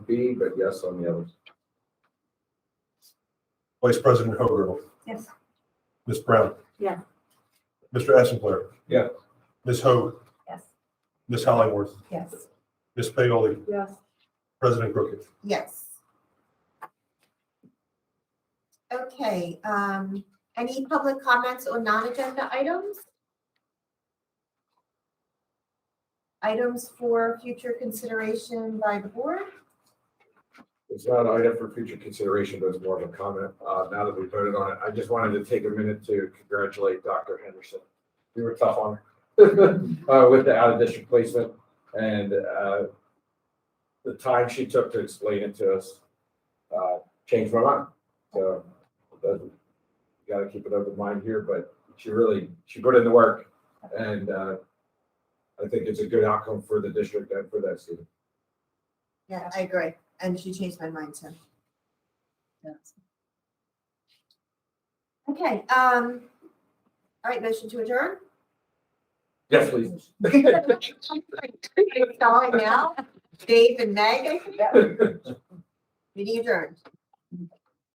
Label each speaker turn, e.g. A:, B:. A: B, but yes on the others.
B: Vice President Hoagur.
C: Yes.
B: Ms. Brown.
C: Yes.
B: Mr. Essenpler.
A: Yeah.
B: Ms. Hoag.
C: Yes.
B: Ms. Hollingworth.
C: Yes.
B: Ms. Paoli.
C: Yes.
B: President Crooked.
D: Yes. Okay, um, any public comments on non-agenda items? Items for future consideration by the board?
A: It's not an item for future consideration, but it's more of a comment. Uh, now that we voted on it, I just wanted to take a minute to congratulate Dr. Henderson. You were tough on her, uh, with the out of district placement and, uh, the time she took to explain it to us, uh, changed my mind. So, it doesn't- you gotta keep an open mind here, but she really, she put in the work and, uh, I think it's a good outcome for the district and for that student.
D: Yeah, I agree. And she changed my mind too. Okay, um, all right, motion to adjourn?
A: Yes, please.
D: Calling now, Dave and Meg, meeting adjourned.